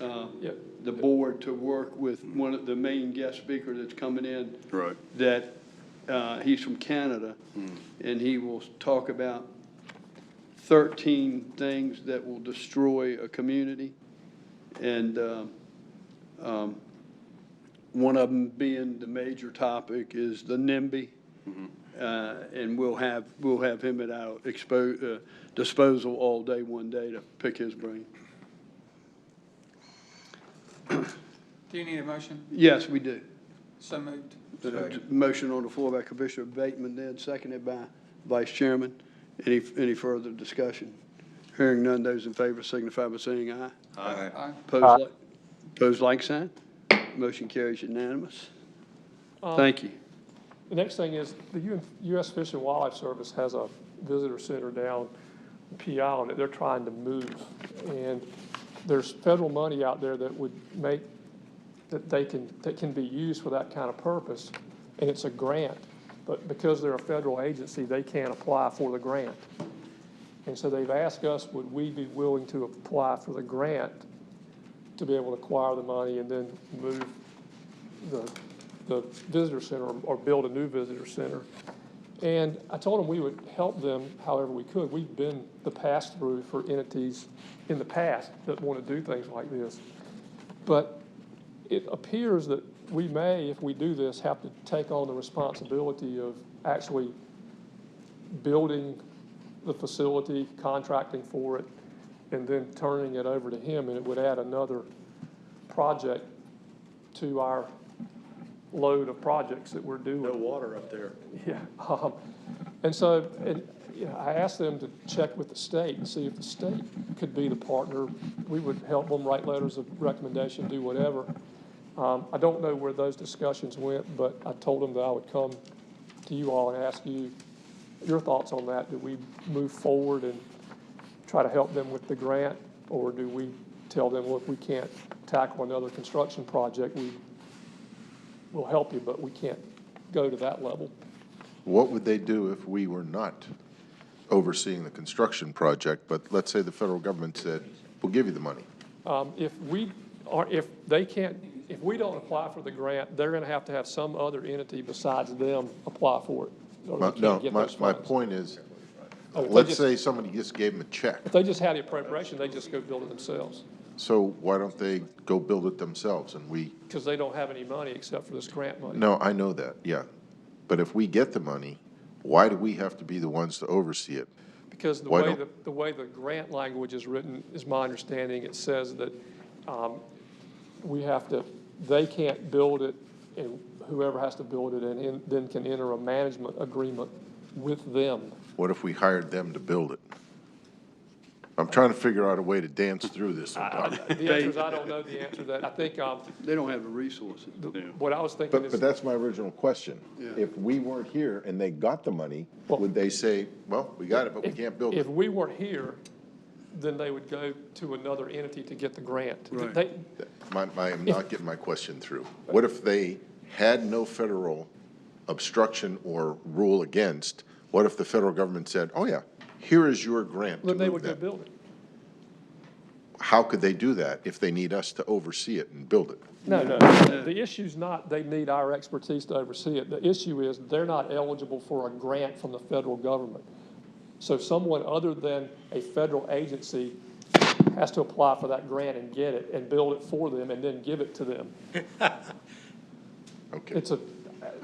uh, Yep. the board to work with one of the main guest speaker that's coming in. Right. That, uh, he's from Canada, and he will talk about thirteen things that will destroy a community. And, um, um, one of them being the major topic is the NIMBY. Uh, And we'll have, we'll have him at our expo, uh, disposal all day, one day to pick his brain. Do you need a motion? Yes, we do. So moved. The Motion on the floor by Commissioner Bateman, then seconded by Vice Chairman. Any, any further discussion? Hearing none, those in favor signify by saying aye. Aye. Pose like, pose like sign. Motion carries unanimous. Um, Thank you. The next thing is, the U- U.S. Fish and Wildlife Service has a visitor center down PI that they're trying to move. And there's federal money out there that would make, that they can, that can be used for that kind of purpose, and it's a grant. But because they're a federal agency, they can't apply for the grant. And so they've asked us, would we be willing to apply for the grant to be able to acquire the money and then move the, the visitor center or build a new visitor center. And I told them we would help them however we could. We've been the pass-through for entities in the past that want to do things like this. But it appears that we may, if we do this, have to take on the responsibility of actually building the facility, contracting for it, and then turning it over to him, and it would add another project to our load of projects that we're doing. No water up there. Yeah, um, and so, and, you know, I asked them to check with the state and see if the state could be the partner. We would help them write letters of recommendation, do whatever. Um, I don't know where those discussions went, but I told them that I would come to you all and ask you your thoughts on that. Do we move forward and try to help them with the grant? Or do we tell them, look, we can't tackle another construction project, we will help you, but we can't go to that level? What would they do if we were not overseeing the construction project, but let's say the federal government said, we'll give you the money? Um, If we are, if they can't, if we don't apply for the grant, they're going to have to have some other entity besides them apply for it. or they My- can't No, get my, those my funds. point is, Oh, if they let's just- say somebody just gave them a check, If they just had the appropriation, they just go build it themselves so why don't they go build it themselves and we, because they don't have any money except for this grant money. no, I know that, yeah. But if we get the money, why do we have to be the ones to oversee it? Because the Why way, don't- the, the way the grant language is written, is my understanding, it says that um, we have to, they can't build it, and whoever has to build it, and in- then can enter a management agreement with them. What if we hired them to build it? I'm trying to figure out a way to dance through this sometime. The answer is, I don't know the answer to that. I think um, They don't have the resources. what I was thinking But, is, but that's my original question. Yeah. If we weren't here and they got the money, Well- would they say, well, we got it, but we if can't build if it? we weren't here, then they would go to another entity to get the grant. Right. They- My, my, I'm not getting my question through. What if they had no federal obstruction or rule against? What if the federal government said, oh yeah, here is your grant to Then they move would go that? build it. How could they do that if they need us to oversee it and build it? No, no, the issue's not they need our expertise to oversee it. The issue is they're not eligible for a grant from the federal government. So someone other than a federal agency has to apply for that grant and get it and build it for them and then give it to them. Okay. It's a,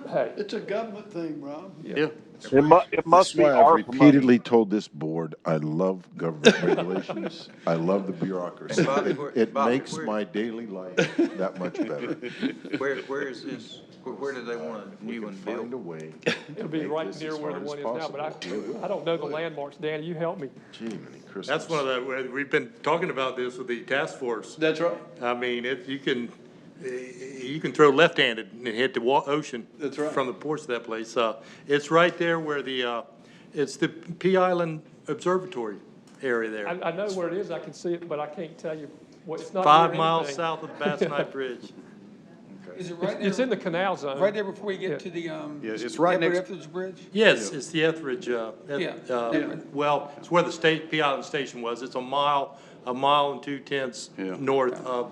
hey, It's a government thing, Rob. Yeah. It mu- it must That's be why I've ARPA money. repeatedly told this board, I love government regulations. I love the bureaucracy. Bobby, It- where- It Bobby, makes where- my daily life that much better. Where, where is this, where, where do they want a new We can one find a built? way. it'll be right near where the one is now, but I, I don't know the landmarks. Danny, you help me. Gee, many Christmas. That's one of the, where we've been talking about this with the task force. That's right. I mean, if you can, eh, you can throw left-handed and hit the wa, ocean. That's right. From the ports of that place. Uh, it's right there where the, uh, it's the P Island Observatory area I, there. I know where it is, I can see it, but I can't tell you what, it's not near Five miles anything. south of the Bass Knife Bridge. Is it right It's in there, the canal zone. right there before you get to the, um, Yeah, it's right Edward next- Etheridge Bridge? Yes, it's the Etheridge, uh, Eth- Yeah. uh, Yeah. well, it's where the state, P Island Station was. It's a mile, a mile and two tenths Yeah. north of